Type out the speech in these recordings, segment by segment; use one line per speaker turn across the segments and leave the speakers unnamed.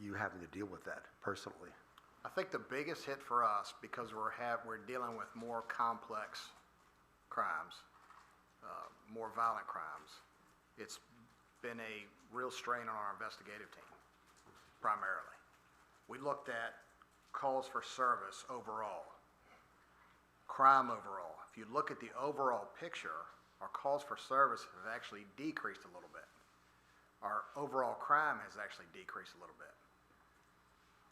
you having to deal with that personally?
I think the biggest hit for us, because we're have, we're dealing with more complex crimes, uh, more violent crimes, it's been a real strain on our investigative team, primarily. We looked at calls for service overall, crime overall. If you look at the overall picture, our calls for service have actually decreased a little bit. Our overall crime has actually decreased a little bit.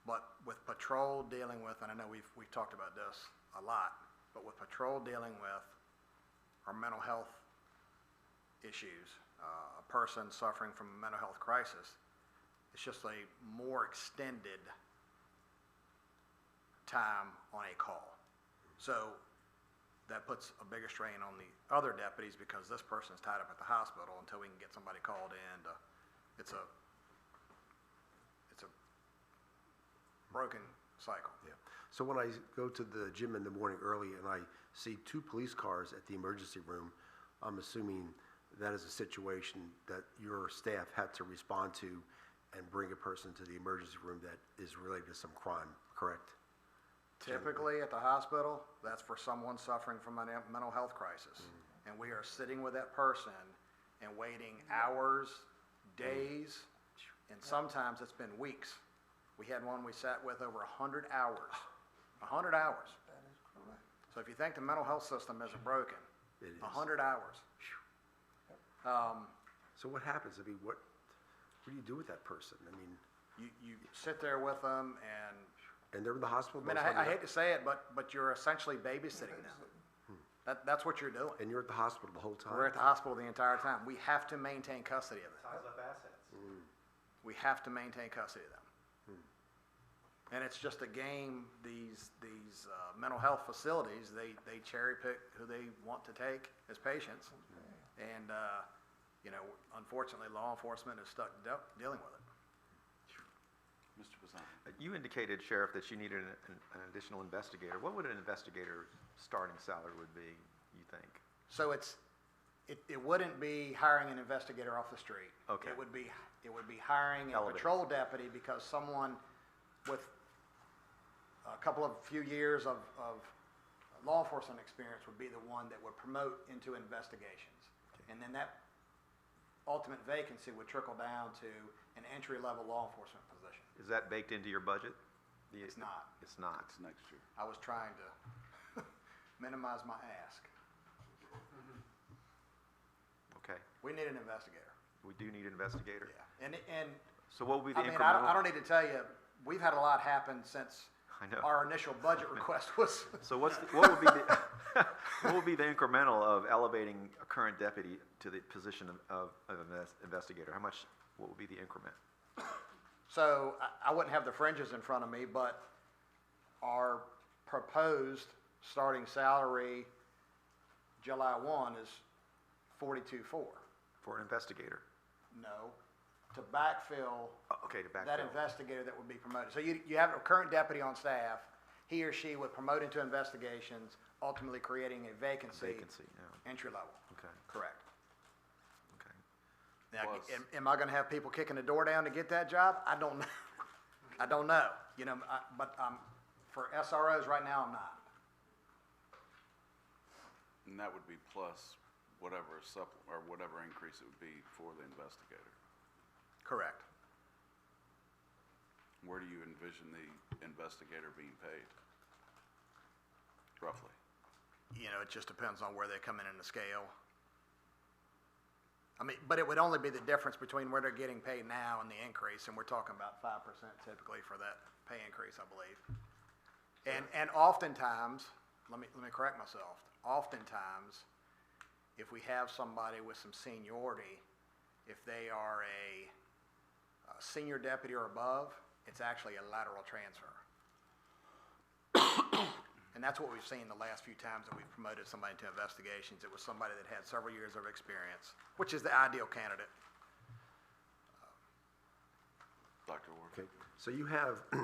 But with patrol dealing with, and I know we've, we've talked about this a lot, but with patrol dealing with our mental health issues, uh, a person suffering from a mental health crisis, it's just a more extended time on a call. So that puts a bigger strain on the other deputies because this person's tied up at the hospital until we can get somebody called in to, it's a, it's a broken cycle.
Yeah. So when I go to the gym in the morning early and I see two police cars at the emergency room, I'm assuming that is a situation that your staff had to respond to and bring a person to the emergency room that is related to some crime, correct?
Typically, at the hospital, that's for someone suffering from a mental health crisis.
Mm.
And we are sitting with that person and waiting hours, days,
Mm.
and sometimes it's been weeks. We had one we sat with over a hundred hours, a hundred hours. So if you think the mental health system isn't broken,
It is.
a hundred hours. Um,
So what happens? I mean, what, what do you do with that person? I mean,
you, you sit there with them and
and they're in the hospital.
I mean,
most of the
I, I
night,
hate to say it, but, but you're essentially babysitting them. That, that's what you're doing.
And you're at the hospital the whole time.
We're at the hospital the entire time. We have to maintain custody of them.
ties up assets.
We have to maintain custody of them. And it's just a game, these, these, uh, mental health facilities, they, they cherry pick who they want to take as patients. And, uh, you know, unfortunately, law enforcement is stuck de- dealing with it.
Mr. Pizzano.
You indicated, Sheriff, that you needed an, an- an additional investigator. What would an investigator's starting salary would be, you think?
So it's, it, it wouldn't be hiring an investigator off the street.
Okay.
It would be, it would be hiring a
Elevator.
patrol deputy because someone with a couple of few years of, of law enforcement experience would be the one that would promote into investigations. And then that ultimate vacancy would trickle down to an entry-level law enforcement position.
Is that baked into your budget? The-
It's not.
It's not.
It's next year.
I was trying to minimize my ask.
Okay.
We need an investigator,
We do need an investigator.
yeah. And, and
So what would be
I
the
mean, I don't, I
incremental?
don't need to tell you, we've had a lot happen since
I know.
our initial budget request was,
So what's, the- what would be the, what would be the incremental of elevating a current deputy to the position of- of, of invest- investigator? How much, what would be the increment?
so I, I wouldn't have the fringes in front of me, but our proposed starting salary July one is forty-two four.
For an investigator?
No, to backfill
Oh, Okay, to backfill.
that investigator that would be promoted. So you, you have a current deputy on staff, he or she would promote into investigations, ultimately creating a vacancy.
Vacancy, yeah.
Entry level.
Okay.
Correct.
Okay.
Now,
Plus-
am, am I gonna have people kicking the door down to get that job? I don't know. I don't know, you know, I, but, um, for SROs right now, I'm not.
And that would be plus whatever supp, or whatever increase it would be for the investigator.
Correct.
Where do you envision the investigator being paid? Roughly.
You know, it just depends on where they come in in the scale. I mean, but it would only be the difference between where they're getting paid now and the increase, and we're talking about five percent typically for that pay increase, I believe. And, and oftentimes, let me, let me correct myself, oftentimes, if we have somebody with some seniority, if they are a uh, senior deputy or above, it's actually a lateral transfer. And that's what we've seen the last few times that we've promoted somebody to investigations. It was somebody that had several years of experience, which is the ideal candidate.
Dr. Ward?
Okay, so you have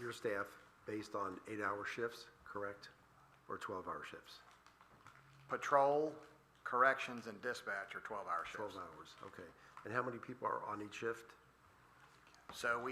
your staff based on eight-hour shifts, correct? Or 12-hour shifts?
Patrol, corrections, and dispatch are twelve-hour
12
shifts.
hours, okay. And how many people are on each shift?
So we